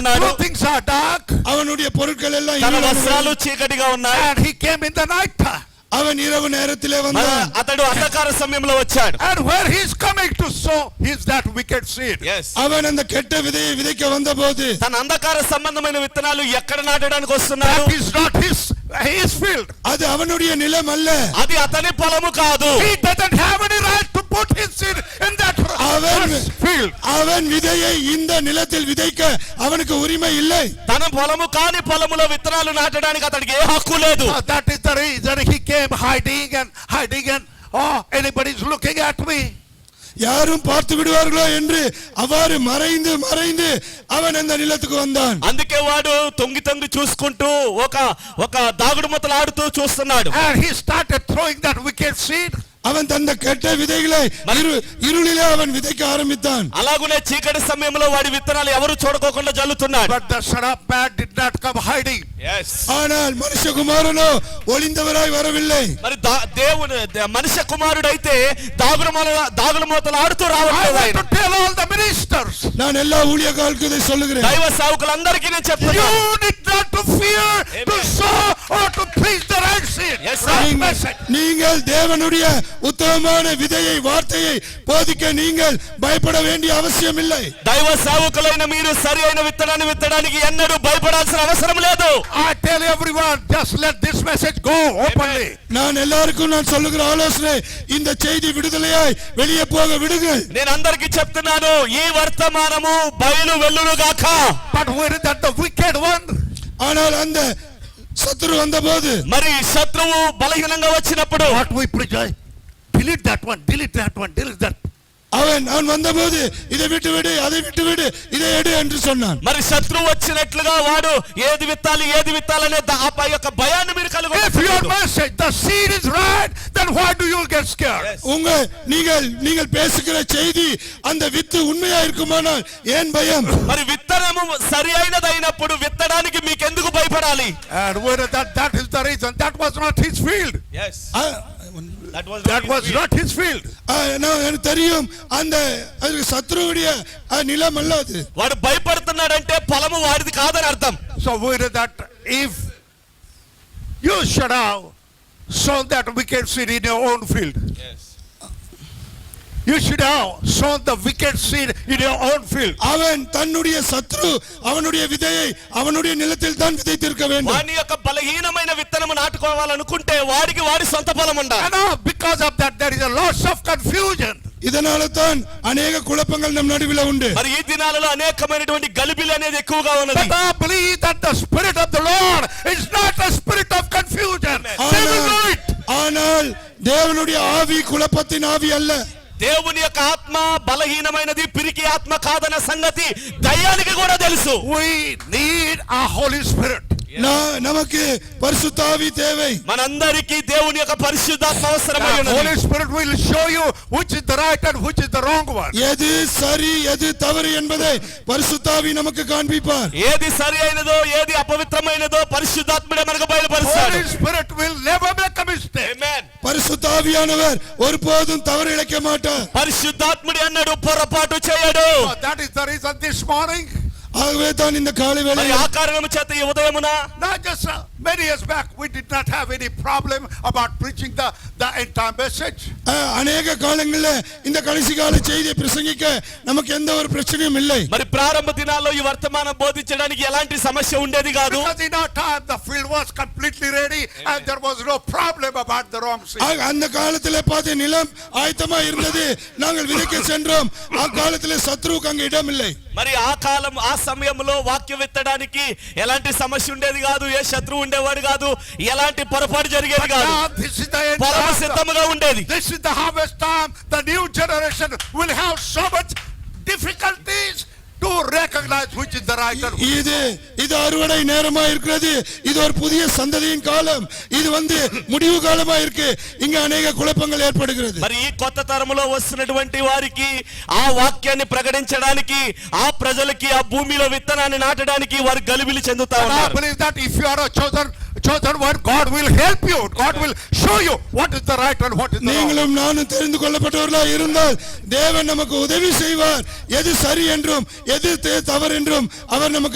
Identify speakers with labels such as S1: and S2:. S1: ఉన్నాడు
S2: His things are dark
S3: அவனுடைய பொருட்கள் எல்லாம்
S1: తన
S3: இருளா
S1: వస్త్రాలు
S3: இருந்தது.
S1: చీకటిగా ఉన్నాయి
S2: and he came in the night time.
S3: அவன் இரவு நேரத்திலே
S1: మన
S3: வந்தான்
S1: అతడు అంధకార సమయంలో వచ్చాడు
S2: And where he is coming to sow is that wicked seed.
S1: Yes.
S3: அவன் அந்த கெட்ட விதையை விதைக்க வந்தபோது
S1: తన అంధకార సంబంధమైన విత్తనాలు ఎక్కడ నాటడానికి వస్తున్నాడు
S2: That is not his, his field.
S3: அது அவனுடைய நிலம் அல்ல
S1: అది అతని పొలము కాదు
S2: He doesn't have any right to put his seed in that
S3: Amen.
S2: first field.
S3: அவன் விதையை இந்த நிலத்தில் விதைக்க அவனுக்கு உரிமை இல்லை
S1: తన పొలము కాని పొలములో విత్తనాలు నాటడానికి అతనికి ఏ హక్కు లేదు
S2: Uh, that is the reason he came hiding and hiding and oh, anybody's looking at me.
S3: யாரும் பார்த்து விடுவார்களோ என்று அவ்வாறு மறைந்து மறைந்து அவன் அந்த நிலத்துக்கு வந்தான்
S1: అందుకే వాడు తొంగి తొంగి చూసుకుంటూ ఒక ఒక దాగుడు మొత్తలు ఆడుతూ చూస్తున్నాడు
S2: And he started throwing that wicked seed.
S3: அவன் தந்த கெட்ட விதைகளை இரு- இருளிலே அவன் விதைக்க ஆரம்பித்தான்
S1: అలాగునే చీకటి సమయంలో వాడి విత్తనాలు ఎవరు చూడకోకుండా జల్లుతున్నాడు
S2: But the son of man did not come hiding.
S3: ஆனால் మనుషకుమారునో ஒளிந்தவராய் வரவில்லை
S1: మరి దా- దేవుని ద- మనిషి కుమారుడైతే దాగుడు మొల- దాగుడు మూతలు ఆడుతూ
S2: I
S1: రావట్లేదు ఆయన
S2: want to tell all the ministers,
S3: நான் எல்லா ஊழியர்களுக்கும் இதை சொல்லுகிறேன்
S1: దైవ సేవకులందరికీ నేను చెప్తున్నాను
S2: you need not to fear to
S1: Amen.
S2: sow or to preach the right seed.
S1: Yes, sir.
S2: right
S3: நீங்கள்-
S2: message.
S3: நீங்கள் தேவனுடைய உத்தமமான விதையை வார்த்தையை போதிக்க நீங்கள் பயப்பட வேண்டிய அவசியம் இல்லை
S1: దైవ సేవకులైన మీరు సరి అయిన విత్తనాన్ని విత్తడానికి ఎన్నడూ భయపడాల్సిన అవసరం లేదు
S2: I tell everyone, just let this message go openly.
S3: நான் எல்லாருக்கும் நான் சொல்லுகிற ஆலோசனை இந்த செய்தி விடுதலையாய் வெளியே போக விடுங்கள்
S1: నేను అందరికీ చెప్తున్నాను ఈ వర్తమానము బయలు వెల్లులుగాక
S2: But where is that the wicked one?
S3: ஆனால் அந்த சத்துரு வந்தபோது
S1: మరి శత్రువు బలహీనంగా వచ్చినప్పుడు
S2: What we preach, I delete that one, delete that one, delete that.
S3: அவன் அவன் வந்தபோது இதை விட்டு விடு அதை விட்டு விடு இதை எடு என்று சொன்னான்
S1: మరి శత్రువు వచ్చినట్లుగా వాడు ఏది విత్తాలి ఏది విత్తాలనే ద- ఆ పై యొక్క భయాన్ని మీరు
S2: If your
S1: కలుగు
S2: message, the seed is right, then why do you get scared?
S1: Yes.
S3: உங்க நீங்கள் நீங்கள் பேசுகிற செய்தி அந்த வித்து உண்மையா இருக்குமானால் ஏன் பயம்
S1: మరి విత్తనము సరి అయినదైనప్పుడు విత్తడానికి మీకెందుకు భయపడాలి
S2: And whether that, that is the reason, that was not his field.
S3: அ-
S2: That was not his field.
S3: ஆ, நான் எனக்கு தெரியும் அந்த அது சத்ருவுடைய ஆ, நிலம் அல்ல அது
S1: వాడు భయపడుతున్నాడంటే పొలము వాడిది కాదని అర్థం
S2: So where is that, if you should have sown that wicked seed in your own field. You should have sown the wicked seed in your own field.
S3: அவன் தன்னுடைய சத்ரு அவனுடைய விதையை அவனுடைய நிலத்தில் தான் விதைத்திருக்க வேண்டும்
S1: వాని యొక్క బలహీనమైన విత్తనము నాటుకోవాలనుకుంటే వాడికి వాడి సొంత పొలం ఉండాలి
S2: And now because of that, there is a lots of confusion.
S3: இதனால தான் அநேக குழப்பங்கள் நம் நடுவில் உண்டு
S1: మరి ఈ దినాలలో అనేకమైనటువంటి గలిబిలు అనేది ఎక్కువగా ఉన్నది
S2: But I believe that the spirit of the Lord is not a spirit of confusion. They will know
S3: ஆனால்-
S2: it.
S3: ஆனால் தேவனுடைய ஆவி குழப்பத்தின் ஆவி அல்ல
S1: దేవుని యొక్క ఆత్మ బలహీనమైనది పిరికి ఆత్మ కాదన్న సంగతి దయ్యానికి కూడా తెలుసు
S2: We need a Holy Spirit.
S3: நான் நமக்கு பரிசுத்த ஆவி தேவை
S1: మనందరికీ దేవుని యొక్క పరిశుద్ధాత్మ అవసరమై
S2: The
S1: ఉన్నది
S2: Holy Spirit will show you which is the right and which is the wrong one.
S3: எது சரி எது தவறு என்பதை பரிசுத்தாவி நமக்கு காண்பிப்பார்
S1: ఏది సరి అయినదో ఏది అపవిత్రమైనదో పరిశుద్ధాత్ముడే మనకు బయలుపరుస్తాడు
S2: Holy Spirit will never make a mistake.
S1: Amen.
S3: பரிசுத்தாவியானவர் ஒருபோதும் தவறு இழைக்க மாட்டார்
S1: పరిశుద్ధాత్ముడి అన్నాడు పొరపాటు చేయడు
S2: So that is the reason this morning,
S3: ஆகவே தான் இந்த காலை
S1: మరి
S3: வேளையில்
S1: ఆ కారణం చేత ఈ ఉదయమున
S2: not just uh, many years back, we did not have any problem about preaching the, the entire message.
S3: அஹ், அநேக காலங்களில் இந்த கடைசி கால செய்தியை பிரசங்கிக்க நமக்கு எந்த ஒரு பிரச்சனையும் இல்லை
S1: మరి ప్రారంభ దినాల్లో ఈ వర్తమానం బోధించడానికి ఎలాంటి సమస్య ఉండేది కాదు
S2: Because in our time, the field was completely ready and there was no problem about the wrong seed.
S3: ஆக, அந்த காலத்திலே பார்த்து நிலம் ஆயத்தமா இருந்தது நாங்கள் விதைக்க சென்றோம் அக்காலத்திலே சத்ருவுக்கு அங்கு இடம் இல்லை
S1: మరి ఆ కాలం ఆ సమయంలో వాక్యం విత్తడానికి ఎలాంటి సమస్య ఉండేది కాదు ఏ శత్రువు ఉండేవాడు కాదు ఎలాంటి పొరపాటు జరిగేది కాదు
S2: Now, this is the end
S1: పొలం
S2: time.
S1: సిద్ధముగా ఉండేది
S2: This is the harvest time. The new generation will have so much difficulties to recognize which is the right and
S3: இது இது அறுவடை நேரமா இருக்கிறது இது ஒரு புதிய சந்ததியின் காலம் இது வந்து முடிவு காலமா இருக்கு இங்க அநேக குழப்பங்கள் ஏற்படுகிறது
S1: మరి ఈ కొత్త తరములో వస్తున్నటువంటి వారికి ఆ వాక్యాన్ని ప్రకటించడానికి ఆ ప్రజలకి ఆ భూమిలో విత్తనాన్ని నాటడానికి వారు గలిబిలి చెందుతా
S2: And I
S1: ఉన్నారు
S2: believe that if you are a chosen chosen one, God will help you. God will show you what is the right and what is the wrong.
S3: நீங்களும் நானும் தெரிந்து கொள்ளப்பட்டவர்களா இருந்தால் தேவன் நமக்கு உதவி செய்வார் எது சரி என்றும் எது தே- தவறு என்றும் அவர் நமக்கு